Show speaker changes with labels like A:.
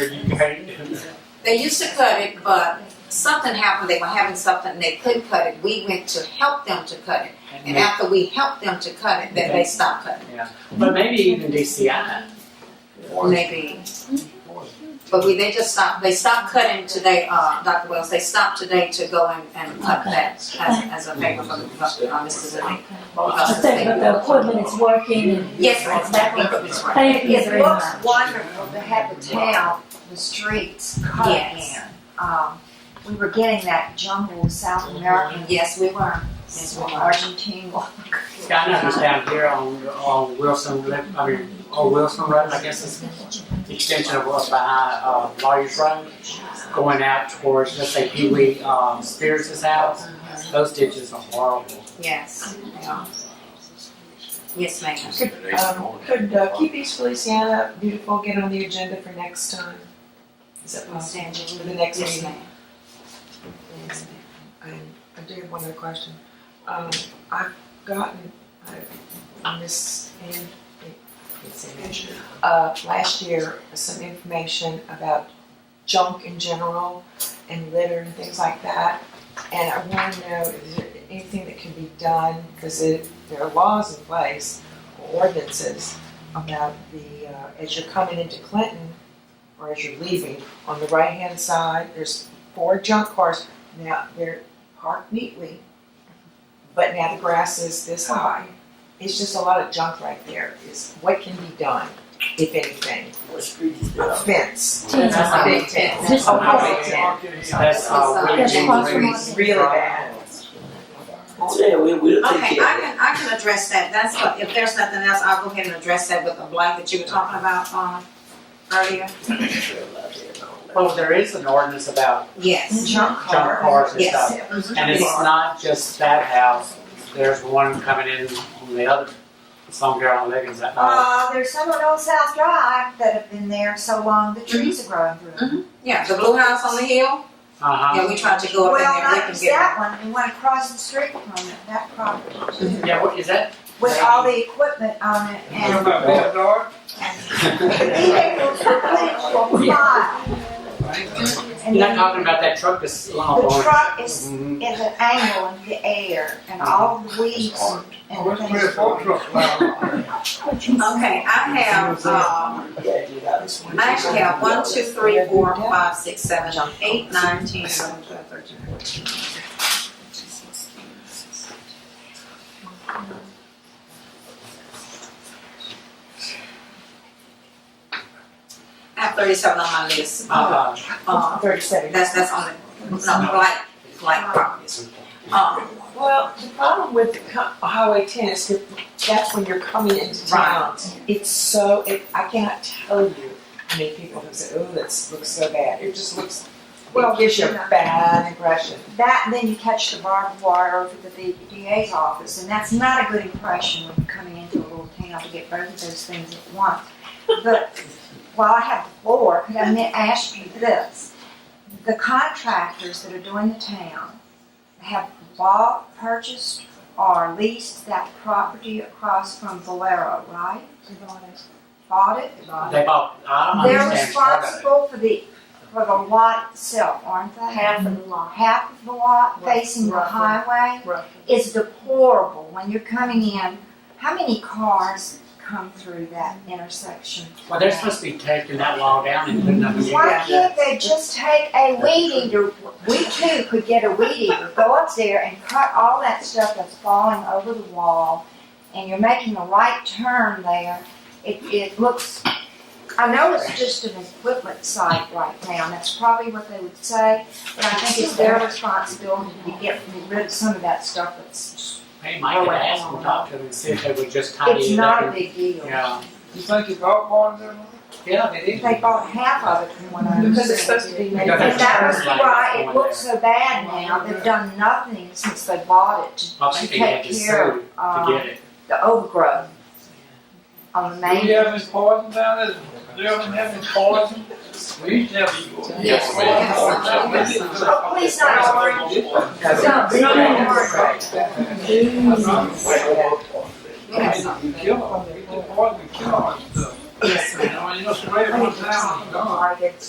A: You can't do that.
B: They used to cut it, but something happened. They were having something, they couldn't cut it. We went to help them to cut it. And after we helped them to cut it, then they stopped cutting,
A: But maybe even DCI.
B: maybe. But we, they just stopped, they stopped cutting today, uh, Dr. Wells, they stopped today to go and, and cut that as, as a favor for, the- for, uh, Mr. Zelay.
C: Just think that the equipment is working and.
B: uh, Yes, ma'am.
C: Exactly.
B: That's right.
C: Thank you
D: It
C: very much.
D: looks wonderful to have the town, the streets cut
B: Yes.
D: again. Um, we were getting that jungle of South American,
B: Yes, we were.
D: yes, well, Argentina.
A: I know it's down here on, on Wilson, Lip- I mean, on Wilson Road, I guess it's the extension of what's behind, uh, Lawyer's Road, going out towards, let's say, Pee Wee, um, Spears' house. Those ditches are horrible.
B: Yes, they are. Yes, ma'am.
E: Um, Could uh, keep East Feliciana beautiful, get on the agenda for next time. Is that
B: Los
E: possible?
B: Angeles.
E: For the next
B: Yes,
E: meeting?
B: ma'am.
E: I, I do have one other question. Um, I've gotten, uh, I, Miss Ann, it's Ann, uh, last year, some information about junk in general and litter and things like that. And I want to know, is there anything that can be done, because it, there are laws in place, or ordinances about the, uh, as you're coming into Clinton, or as you're leaving, on the right-hand side, there's four junk cars now they're parked neatly, but now the grass is this high. It's just a lot of junk right there. Is what can be done, if anything? A fence.
C: That's
E: A
B: That's
E: big
B: all.
E: fence.
C: Just-
E: A big fence.
A: That's, uh, Willie
C: That's
A: Jean
C: possible.
A: Green's.
E: Really bad.
F: Yeah, we, we'll take
B: Okay, I
F: care of it.
B: can, I can address that, that's what, if there's nothing else, I'll go ahead and address that with the blight that you were talking about, um, earlier.
A: Well, there is an ordinance about
B: Yes,
E: Junk
A: junk
E: car.
A: cars and
B: Yes.
A: stuff. And it's not just that house, there's one coming in on the other, some girl on Liggins that night.
D: Uh, there's some on Old South Drive that have been there so long, the trees
B: Mm-hmm.
D: are growing through. them.
B: yeah, the blue house on the hill, yeah,
A: Uh-huh,
B: we tried to go up in
D: Well,
B: there, we
D: not
B: can
D: just
B: get.
D: that one, we went across the street from it, that property,
B: Mm-hmm.
A: yeah, what is that?
D: with all the equipment on it and. Vehicles were flying. And
A: You're not
D: then
A: talking about that truck that's on
D: the
A: the
D: truck is
A: Mhm.
D: is an angle in the air and all the weeds and things.
B: Okay, I have, um,
F: Yeah, you got it.
B: I actually have one, two, three, four, five, six, seven, eight, nine, ten, eleven, twelve, thirteen, fourteen. I have thirty-seven on my list, uh,
A: Uh-huh.
B: uh,
E: Thirty-seven.
B: That's, that's on the, no, blight, blight properties. Um,
E: Well, the problem with the co- Highway ten is that that's when you're coming into town. It's so, it, I cannot tell you how many people have said, oh, this looks so bad. It just looks,
D: Well,
E: it gives you a
D: you know.
E: bad impression.
D: That, and then you catch the barbed wire over the VPDA's office, and that's not a good impression when you're coming into a little town to get both of those things at once. But while I have the floor, could I may ask you this? The contractors that are doing the town have bought, purchased, or leased that property across from Valero, right? Bought it? Bought it.
A: They bought, I don't
D: They're
A: understand part of it.
D: responsible for the, for the lot itself, aren't they?
C: Half of the lot.
D: half of the lot
E: Right,
D: facing the
E: roughly.
D: highway is deplorable when you're coming in. How many cars come through that intersection?
A: Well, they're supposed to be taking that law down and putting up a new
D: Why
A: one.
D: can't they just take a weed eater? We too could get a weed eater, go up there and cut all that stuff that's falling over the wall, and you're making a right turn there. It, it looks, I know it's just an equipment site right now, and that's probably what they would say, but I think it's their responsibility to get rid of some of that stuff that's,
A: Hey, Mike, could ask them, talk to them, and see if they would just tidy
D: it's
A: it
D: not a
A: up.
D: big deal.
A: Yeah,
G: You think you got one of them?
A: yeah, they did.
D: They bought half of it from what I understand.
E: Because it's supposed to be made.
A: Because
D: And
A: it's-
D: that was why it looks so bad now, they've done nothing since they bought it
A: I
D: to, to
A: think they had
D: take
A: to sue
D: care of,
A: to
D: uh,
A: get it.
D: the overgrowth on the
G: Do you
D: main.
G: have any poison down there? Do you ever have any poison? We used to have people.
B: Yes, we have some. We have some.
D: Oh, please not orange. Don't,
E: No, no, Mm. no.
B: we have some.
G: You kill them, you get the poison, you kill them.
B: Yes, ma'am.
G: You know, you know, spray it once down, it's gone.
D: Like it's